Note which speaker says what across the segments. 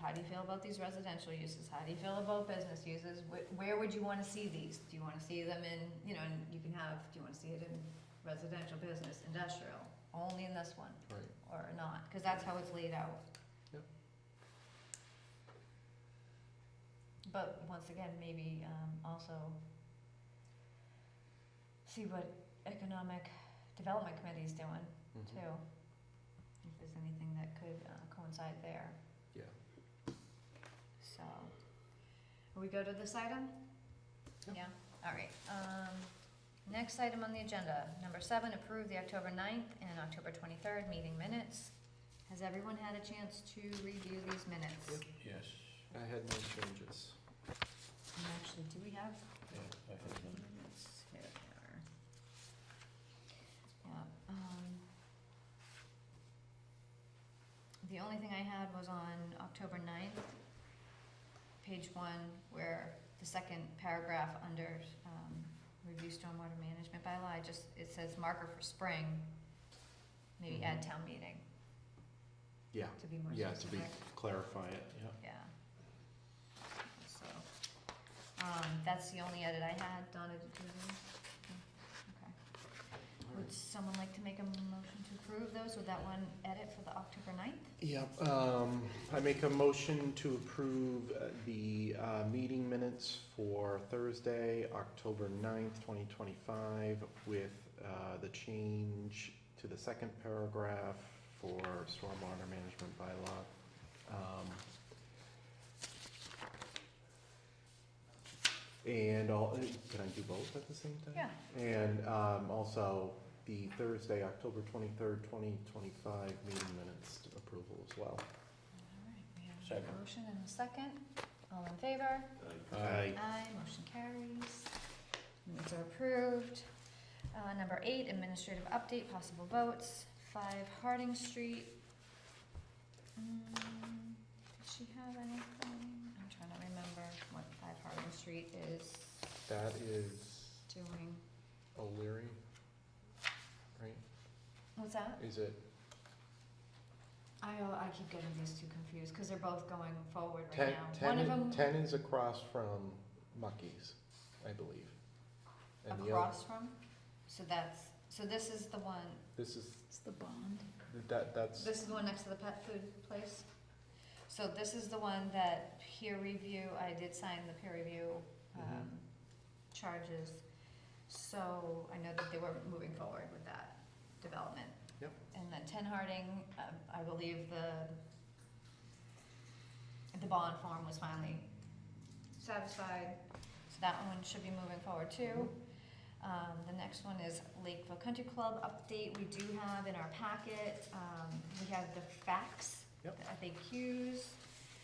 Speaker 1: How do you feel about these residential uses? How do you feel about business uses? Wh- Where would you wanna see these? Do you wanna see them in, you know, and you can have, do you wanna see it in residential, business, industrial? Only in this one,
Speaker 2: Right.
Speaker 1: or not, cause that's how it's laid out.
Speaker 2: Yep.
Speaker 1: But once again, maybe, um, also see what economic development committee's doing
Speaker 2: Mhm.
Speaker 1: too. If there's anything that could uh, coincide there,
Speaker 2: Yeah.
Speaker 1: so. We go to this item?
Speaker 2: Yep.
Speaker 1: Yeah, alright, um, next item on the agenda, number seven, approve the October ninth and October twenty-third meeting minutes. Has everyone had a chance to review these minutes?
Speaker 2: Yep.
Speaker 3: Yes.
Speaker 2: I had no changes.
Speaker 1: And actually, do we have
Speaker 3: Yeah, I have them.
Speaker 1: minutes? Here they are. Yeah, um. The only thing I had was on October ninth, page one, where the second paragraph under, um, review stormwater management bylaw, I just, it says marker for spring. Maybe add town meeting
Speaker 2: Mm-hmm. Yeah,
Speaker 1: to be more
Speaker 2: yeah, to be,
Speaker 1: specific.
Speaker 2: clarify it.
Speaker 3: Yeah.
Speaker 1: Yeah. So, um, that's the only edit I had, Donna, did you agree? Okay. Would someone like to make a motion to approve those with that one edit for the October ninth?
Speaker 2: Yep, um, I make a motion to approve uh, the, uh, meeting minutes for Thursday, October ninth, twenty twenty-five, with, uh, the change to the second paragraph for stormwater management bylaw. Um, And all, can I do both at the same time?
Speaker 1: Yeah.
Speaker 2: And um, also the Thursday, October 23rd, 2025 meeting minutes approval as well.
Speaker 1: All right, we have
Speaker 3: Second.
Speaker 1: a motion and a second. All in favor?
Speaker 2: Aye.
Speaker 1: Aye, motion carries. Minutes are approved. Uh, number eight, administrative update, possible votes, five Harding Street. Mm, Did she have anything? I'm trying to remember what five Harding Street is
Speaker 2: That is
Speaker 1: doing.
Speaker 2: O'Leary, right?
Speaker 1: What's that?
Speaker 2: Is it
Speaker 1: I, uh, I keep getting these two confused, cause they're both going forward
Speaker 2: 10?
Speaker 1: right now.
Speaker 2: 10
Speaker 1: One of
Speaker 2: i-
Speaker 1: them
Speaker 2: 10 is across from Muckies, I believe. And the other,
Speaker 1: across from, so that's, so this is the one,
Speaker 2: this is,
Speaker 1: it's the bond.
Speaker 2: that, that's,
Speaker 1: This is the one next to the pet food place? So this is the one that peer review, I did sign the peer review, um, charges. So I know that they were moving forward with that development.
Speaker 2: Yep.
Speaker 1: And then Ten Harding, um, I believe the, the bond form was finally satisfied. So that one should be moving forward too. Um, the next one is Lakeville Country Club update. We do have in our packet, um, we have the facts, the
Speaker 2: Yep.
Speaker 1: FAQs,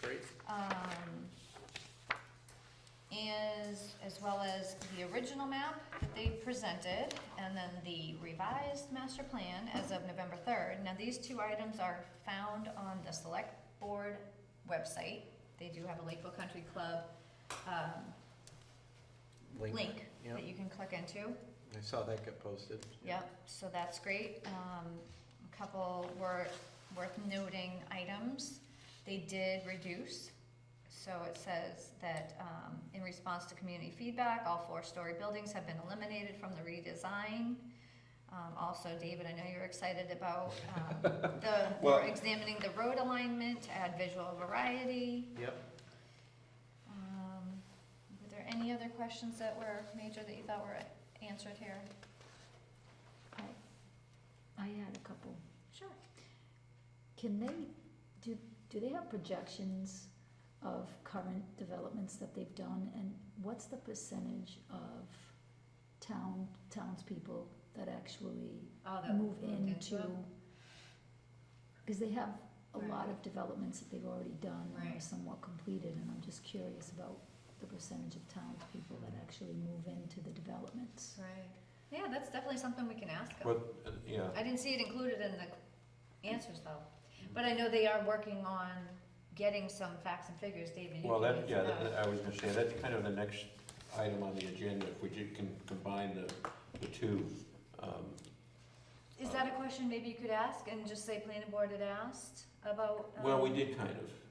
Speaker 2: great.
Speaker 1: um, as, as well as the original map that they presented, and then the revised master plan as of November third. Now, these two items are found on the select board website. They do have a Lakeville Country Club, um, link
Speaker 2: Yep,
Speaker 1: that you can click into.
Speaker 2: I saw that get posted.
Speaker 1: Yep, so that's great. Um, a couple were worth noting items. They did reduce. So it says that, um, in response to community feedback, all four-story buildings have been eliminated from the redesign. Um, also, David, I know you're excited about, um, the,
Speaker 2: Well-
Speaker 1: we're examining the road alignment to add visual variety.
Speaker 2: Yep.
Speaker 1: Um, were there any other questions that were major that you thought were answered here?
Speaker 4: I had a couple.
Speaker 1: Sure.
Speaker 4: Can they, do, do they have projections of current developments that they've done? And what's the percentage of town, townspeople that actually
Speaker 1: Oh, that
Speaker 4: move
Speaker 1: moved
Speaker 4: into?
Speaker 1: it?
Speaker 4: Because they have a
Speaker 1: Right.
Speaker 4: lot of developments that they've already done and are
Speaker 1: Right.
Speaker 4: somewhat completed, and I'm just curious about the percentage of townspeople that actually move into the developments.
Speaker 1: Right. Yeah, that's definitely something we can ask them.
Speaker 5: What, uh, yeah,
Speaker 1: I didn't see it included in the answers though, but I know they are working on getting some facts and figures, David. you
Speaker 5: well,
Speaker 1: can
Speaker 5: that,
Speaker 1: answer
Speaker 5: yeah, that- I was gonna say, that's kind of the next item on the agenda, if we did can combine the, the two. um,
Speaker 1: Is that a question maybe you could ask and just say planning board had asked about?
Speaker 5: Well, we
Speaker 1: um,
Speaker 5: did kind of,